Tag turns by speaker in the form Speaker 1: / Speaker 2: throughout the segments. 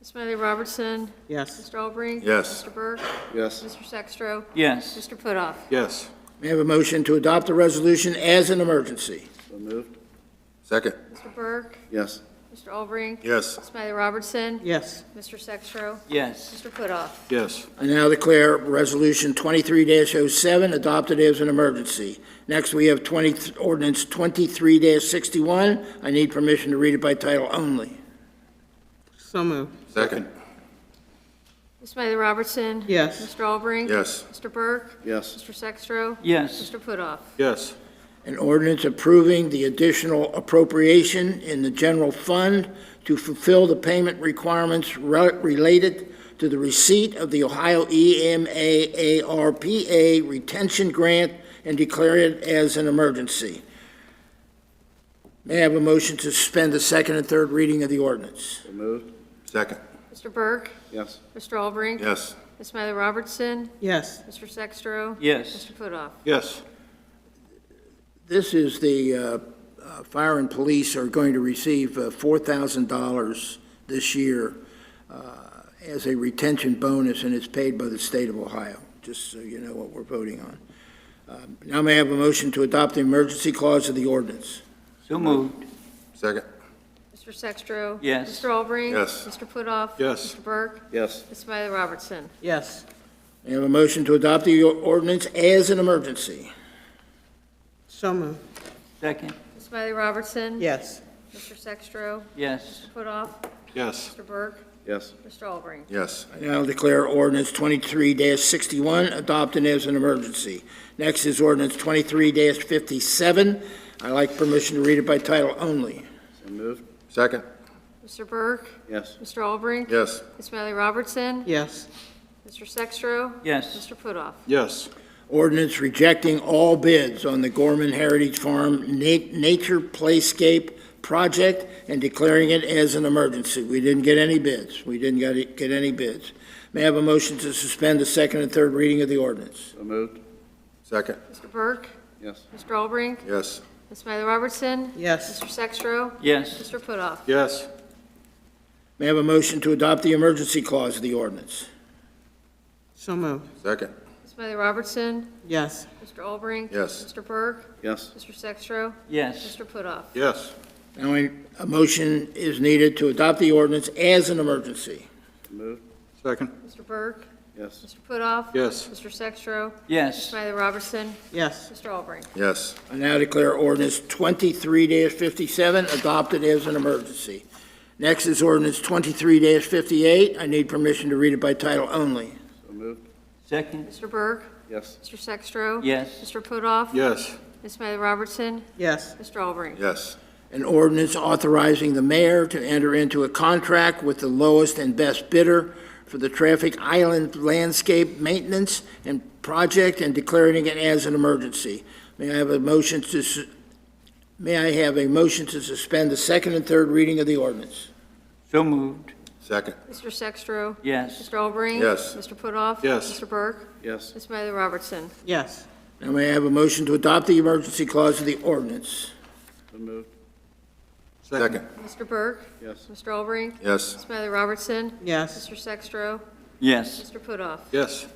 Speaker 1: Ms. Smiley Robertson?
Speaker 2: Yes.
Speaker 1: Mr. Albrecht?
Speaker 3: Yes.
Speaker 1: Mr. Burke?
Speaker 3: Yes.
Speaker 1: Mr. Sextro?
Speaker 4: Yes.
Speaker 1: Mr. Putoff?
Speaker 3: Yes.
Speaker 5: May I have a motion to adopt the resolution as an emergency?
Speaker 3: So moved. Second.
Speaker 1: Mr. Burke?
Speaker 3: Yes.
Speaker 1: Mr. Albrecht?
Speaker 3: Yes.
Speaker 1: Ms. Smiley Robertson?
Speaker 2: Yes.
Speaker 1: Mr. Sextro?
Speaker 4: Yes.
Speaker 1: Mr. Putoff?
Speaker 3: Yes.
Speaker 5: I now declare Resolution 23-07 adopted as an emergency. Next, we have 20, ordinance 23-61. I need permission to read it by title only.
Speaker 2: So moved.
Speaker 3: Second.
Speaker 1: Ms. Smiley Robertson?
Speaker 2: Yes.
Speaker 1: Mr. Albrecht?
Speaker 3: Yes.
Speaker 1: Mr. Burke?
Speaker 3: Yes.
Speaker 1: Mr. Sextro?
Speaker 4: Yes.
Speaker 1: Mr. Putoff?
Speaker 3: Yes.
Speaker 5: An ordinance approving the additional appropriation in the general fund to fulfill the payment requirements re- related to the receipt of the Ohio E EMA ARPA retention grant and declare it as an emergency. May I have a motion to suspend the second and third reading of the ordinance?
Speaker 3: So moved. Second.
Speaker 1: Mr. Burke?
Speaker 3: Yes.
Speaker 1: Mr. Albrecht?
Speaker 3: Yes.
Speaker 1: Ms. Smiley Robertson?
Speaker 2: Yes.
Speaker 1: Mr. Sextro?
Speaker 4: Yes.
Speaker 1: Mr. Putoff?
Speaker 3: Yes.
Speaker 5: This is the, uh, uh, fire and police are going to receive uh, $4,000 this year uh, as a retention bonus, and it's paid by the state of Ohio, just so you know what we're voting on. Um, Now may I have a motion to adopt the emergency clause of the ordinance?
Speaker 4: So moved.
Speaker 3: Second.
Speaker 1: Mr. Sextro?
Speaker 4: Yes.
Speaker 1: Mr. Albrecht?
Speaker 3: Yes.
Speaker 1: Mr. Putoff?
Speaker 3: Yes.
Speaker 1: Mr. Burke?
Speaker 3: Yes.
Speaker 1: Ms. Smiley Robertson?
Speaker 2: Yes.
Speaker 5: May I have a motion to adopt the ordinance as an emergency?
Speaker 2: So moved.
Speaker 4: Second.
Speaker 1: Ms. Smiley Robertson?
Speaker 2: Yes.
Speaker 1: Mr. Sextro?
Speaker 4: Yes.
Speaker 1: Putoff?
Speaker 3: Yes.
Speaker 1: Mr. Burke?
Speaker 3: Yes.
Speaker 1: Mr. Albrecht?
Speaker 3: Yes.
Speaker 5: I now declare ordinance 23-61 adopted as an emergency. Next is ordinance 23-57. I'd like permission to read it by title only.
Speaker 3: So moved. Second.
Speaker 1: Mr. Burke?
Speaker 3: Yes.
Speaker 1: Mr. Albrecht?
Speaker 3: Yes.
Speaker 1: Ms. Smiley Robertson?
Speaker 2: Yes.
Speaker 1: Mr. Sextro?
Speaker 4: Yes.
Speaker 1: Mr. Putoff?
Speaker 3: Yes.
Speaker 5: Ordinance rejecting all bids on the Gorman Heritage Farm Na- Nature Playscape project and declaring it as an emergency. We didn't get any bids. We didn't get it- get any bids. May I have a motion to suspend the second and third reading of the ordinance?
Speaker 3: So moved. Second.
Speaker 1: Mr. Burke?
Speaker 3: Yes.
Speaker 1: Mr. Albrecht?
Speaker 3: Yes.
Speaker 1: Ms. Smiley Robertson?
Speaker 2: Yes.
Speaker 1: Mr. Sextro?
Speaker 4: Yes.
Speaker 1: Mr. Putoff?
Speaker 3: Yes.
Speaker 5: May I have a motion to adopt the emergency clause of the ordinance?
Speaker 2: So moved.
Speaker 3: Second.
Speaker 1: Ms. Smiley Robertson?
Speaker 2: Yes.
Speaker 1: Mr. Albrecht?
Speaker 3: Yes.
Speaker 1: Mr. Burke?
Speaker 3: Yes.
Speaker 1: Mr. Sextro?
Speaker 4: Yes.
Speaker 1: Mr. Putoff?
Speaker 3: Yes.
Speaker 5: Now, a a motion is needed to adopt the ordinance as an emergency.
Speaker 3: Moved. Second.
Speaker 1: Mr. Burke?
Speaker 3: Yes.
Speaker 1: Mr. Putoff?
Speaker 3: Yes.
Speaker 1: Mr. Sextro? Ms.
Speaker 4: Yes.
Speaker 1: Smiley Robertson?
Speaker 2: Yes.
Speaker 1: Mr. Albrecht?
Speaker 3: Yes.
Speaker 5: I now declare ordinance 23-57 adopted as an emergency. Next is ordinance 23-58. I need permission to read it by title only.
Speaker 3: So moved.
Speaker 4: Second.
Speaker 1: Mr. Burke?
Speaker 3: Yes.
Speaker 1: Mr. Sextro?
Speaker 4: Yes.
Speaker 1: Mr. Putoff?
Speaker 3: Yes.
Speaker 1: Ms. Smiley Robertson?
Speaker 2: Yes.
Speaker 1: Mr. Albrecht?
Speaker 3: Yes.
Speaker 5: An ordinance authorizing the mayor to enter into a contract with the lowest and best bidder for the Traffic Island Landscape Maintenance and Project and declaring it as an emergency. May I have a motion to, su- may I have a motion to suspend the second and third reading of the ordinance?
Speaker 4: So moved.
Speaker 3: Second.
Speaker 1: Mr. Sextro?
Speaker 4: Yes.
Speaker 1: Mr. Albrecht?
Speaker 3: Yes.
Speaker 1: Mr. Putoff?
Speaker 3: Yes.
Speaker 1: Mr. Burke?
Speaker 3: Yes.
Speaker 1: Ms. Smiley Robertson?
Speaker 2: Yes.
Speaker 5: Now may I have a motion to adopt the emergency clause of the ordinance?
Speaker 3: So moved. Second.
Speaker 1: Mr. Burke?
Speaker 3: Yes.
Speaker 1: Mr. Albrecht?
Speaker 3: Yes.
Speaker 1: Ms. Smiley Robertson?
Speaker 2: Yes.
Speaker 1: Mr. Sextro?
Speaker 4: Yes.
Speaker 1: Mr. Putoff?
Speaker 3: Yes.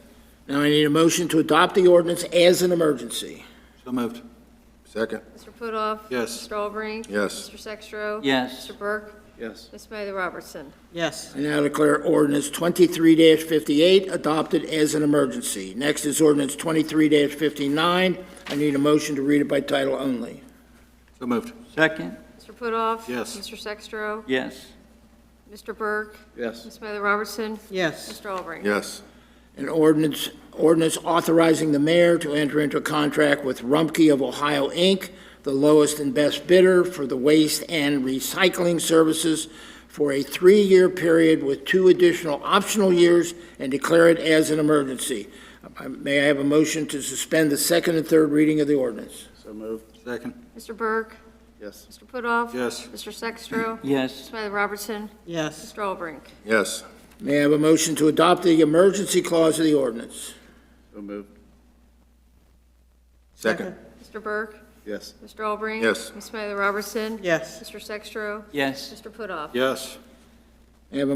Speaker 5: Now I need a motion to adopt the ordinance as an emergency.
Speaker 3: So moved. Second.
Speaker 1: Mr. Putoff?
Speaker 3: Yes.
Speaker 1: Mr. Albrecht?
Speaker 3: Yes.
Speaker 1: Mr. Sextro?
Speaker 4: Yes.
Speaker 1: Mr. Burke?
Speaker 3: Yes.
Speaker 1: Ms. Smiley Robertson?
Speaker 2: Yes.
Speaker 5: I now declare ordinance 23-58 adopted as an emergency. Next is ordinance 23-59. I need a motion to read it by title only.
Speaker 3: So moved.
Speaker 4: Second.
Speaker 1: Mr. Putoff?
Speaker 3: Yes.
Speaker 1: Mr. Sextro?
Speaker 4: Yes.
Speaker 1: Mr. Burke?
Speaker 3: Yes.
Speaker 1: Ms. Smiley Robertson?
Speaker 2: Yes.
Speaker 1: Mr. Albrecht?
Speaker 3: Yes.
Speaker 5: An ordinance, ordinance authorizing the mayor to enter into a contract with Rumpke of Ohio, Inc., the lowest and best bidder for the waste and recycling services for a three-year period with two additional optional years and declare it as an emergency. Uh, May I have a motion to suspend the second and third reading of the ordinance?
Speaker 3: So moved. Second.
Speaker 1: Mr. Burke?
Speaker 3: Yes.
Speaker 1: Mr. Putoff?
Speaker 3: Yes.
Speaker 1: Mr. Sextro? Ms.
Speaker 4: Yes.
Speaker 1: Smiley Robertson?
Speaker 2: Yes.
Speaker 1: Mr. Albrecht?
Speaker 3: Yes.
Speaker 5: May I have a motion to adopt the emergency clause of the ordinance?
Speaker 3: So moved. Second.
Speaker 1: Mr. Burke?
Speaker 3: Yes.
Speaker 1: Mr. Albrecht?
Speaker 3: Yes.
Speaker 1: Ms. Smiley Robertson?
Speaker 2: Yes.
Speaker 1: Mr. Sextro?
Speaker 4: Yes.
Speaker 1: Mr. Putoff?
Speaker 3: Yes.